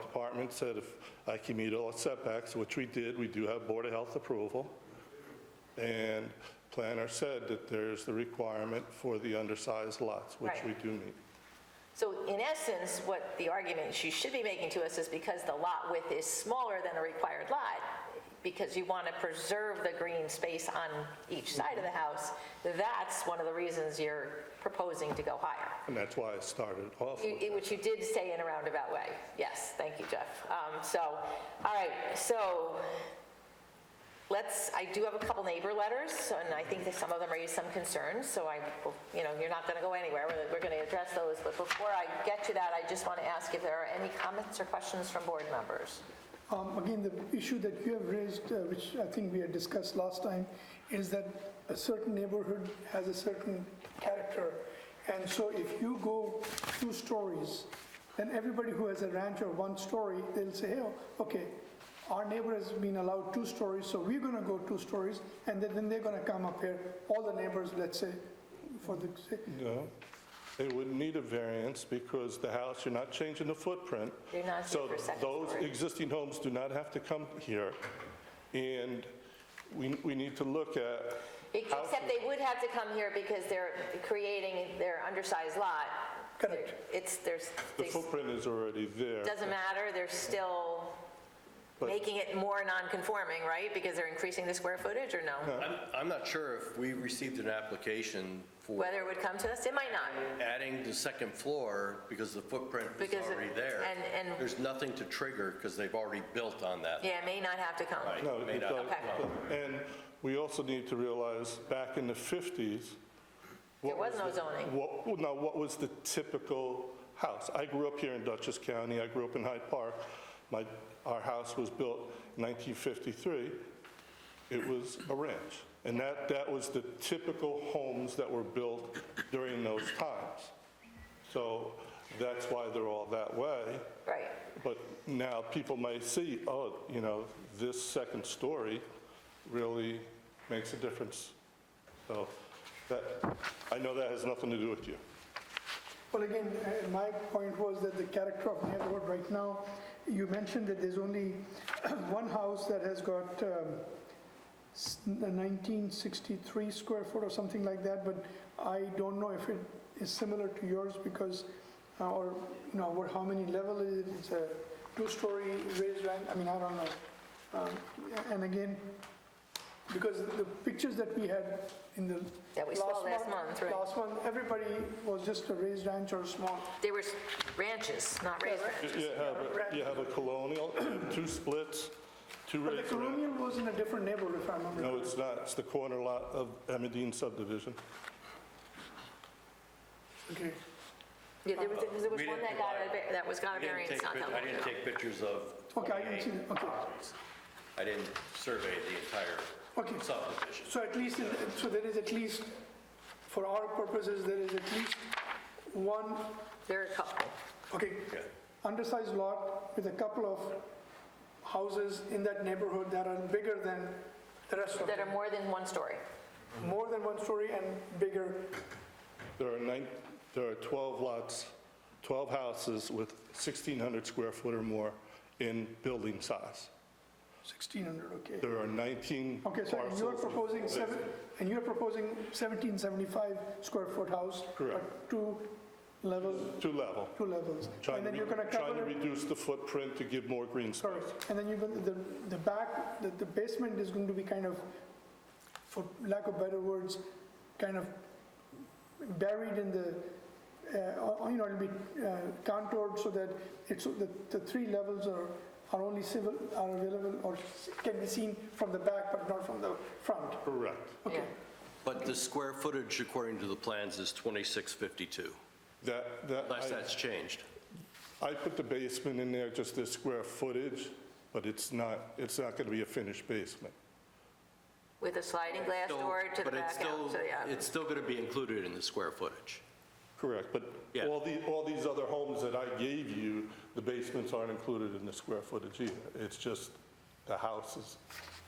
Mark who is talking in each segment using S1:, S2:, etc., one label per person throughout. S1: department said if I can meet all setbacks, which we did, we do have Board of Health approval. And planner said that there's the requirement for the undersized lots, which we
S2: Right.
S1: do meet.
S2: So in essence, what the argument you should be making to us is because the lot width is smaller than a required lot, because you want to preserve the green space on each side of the house, that's one of the reasons you're proposing to go higher.
S1: And that's why I started off.
S2: You- Which you did say in a roundabout way. Yes, thank you, Jeff. Um, So, all right, so let's, I do have a couple neighbor letters, and I think that some of them raise some concerns, so I, will- you know, you're not going to go anywhere. We're- We're going to address those, but before I get to that, I just want to ask if there are any comments or questions from board members.
S3: Um, Again, the issue that you have raised, uh, which I think we had discussed last time, is that a certain neighborhood has a certain character. And so if you go two stories, then everybody who has a ranch or one story, they'll say, "Hey, okay, our neighbor has been allowed two stories, so we're going to go two stories." And then then they're going to come up here, all the neighbors, let's say, for the,
S1: No, they wouldn't need a variance because the house, you're not changing the footprint.
S2: You're not here
S1: So
S2: for second story.
S1: those existing homes do not have to come here. And we, we need to look at,
S2: Except they would have to come here because they're creating their undersized lot.
S3: Correct.
S2: It's, there's,
S1: the
S2: they-
S1: footprint is already there.
S2: Doesn't matter, they're still
S1: But-
S2: making it more non-conforming, right? Because they're increasing the square footage, or no?
S4: I'm, I'm not sure if we received an application for
S2: Whether it would come to us, it might not.
S4: adding the second floor because the footprint was
S2: Because it-
S4: already there.
S2: and- and-
S4: There's nothing to trigger because they've already built on that.
S2: Yeah, it may not have to come.
S4: Right.
S1: No,
S4: May
S1: it
S4: not.
S1: does-
S2: Okay.
S1: And we also need to realize, back in the 50s... what
S2: There was no
S1: the-
S2: zoning.
S1: What, well, now, what was the typical house? I grew up here in Dutchess County, I grew up in Hyde Park. My, our house was built in 1953. It was a ranch. And that, that was the typical homes that were built during those times. So that's why they're all that way.
S2: Right,
S1: But now people may see, oh, you know, this second story really makes a difference. So that, I know that has nothing to do with you.
S3: Well, again, uh, my point was that the character of neighborhood right now, you mentioned that there's only one house that has got um, s- 1963 square foot or something like that, but I don't know if it is similar to yours because, uh, or, you know, what, how many level is it? It's a two-story raised ranch, I mean, I don't know. Um, And again, because the pictures that we had in the.
S2: That we saw last month, right.
S3: Last one, everybody was just a raised ranch or small.
S2: they were s- ranches, not raised
S3: right.
S2: ranches.
S1: You have, a- you have a colonial, two splits, two
S3: But the
S1: raised ranch.
S3: colonial was in a different neighborhood, if I remember.
S1: No, it's not, it's the corner lot of Emmeline subdivision.
S3: Okay.
S2: Yeah, there was, there was
S4: We
S2: one that
S4: didn't
S2: got a,
S4: divide.
S2: va- that was got
S4: I
S2: a
S4: didn't
S2: variance
S4: take,
S2: not
S4: pic-
S2: that
S4: I
S2: long
S4: didn't
S2: ago.
S4: take pictures of
S3: Okay, I didn't
S4: 28
S3: see that. Okay.
S4: properties. I didn't survey the
S3: Okay.
S4: entire subdivision.
S3: So at least, so there is at least, for our purposes, there is at least one,
S2: There are a couple.
S3: okay,
S4: Yeah.
S3: undersized lot with a couple of houses in that neighborhood that are bigger than the rest of
S2: that
S3: them.
S2: are more than one story.
S3: More than one story and bigger.
S1: There are nine, there are 12 lots, 12 houses with 1,600 square foot or more in building size.
S3: 1,600, okay.
S1: There are 19
S3: Okay,
S1: parcels.
S3: so you're proposing seven, and you're proposing 1775 square foot house?
S1: Correct.
S3: but Two levels,
S1: Two level.
S3: two levels.
S1: Trying
S3: And
S1: to
S3: then you're
S1: re-
S3: going to
S1: trying to
S3: cover,
S1: reduce the footprint to give more green space.
S3: correct. And then you're going, the, the back, the the basement is going to be kind of, for lack of better words, kind of buried in the, uh, or- or, you know, it'll be uh, contoured so that it's, the, the three levels are, are only civil, are available or can be seen from the back, but not from the front.
S1: Correct.
S2: Yeah.
S4: But the square footage according to the plans is 2652,
S1: That, that,
S4: unless
S1: I-
S4: that's changed.
S1: I put the basement in there just as square footage, but it's not, it's not going to be a finished basement.
S2: With a sliding glass
S4: Still-
S2: door to the uh,
S4: but it's
S2: back out, so
S4: still-
S2: yeah.
S4: It's still going to be included in the square footage.
S1: Correct, but
S4: Yeah.
S1: all the, all these other homes that I gave you, the basements aren't included in the square footage either. It's just the houses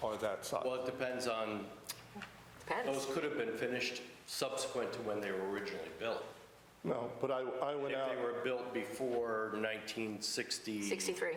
S1: are that size.
S4: Well, it depends on, those
S2: Depends.
S4: could have been finished subsequent to when they were originally built.
S1: No, but I, I
S4: If
S1: went out.
S4: they were built before 1960.
S2: 63.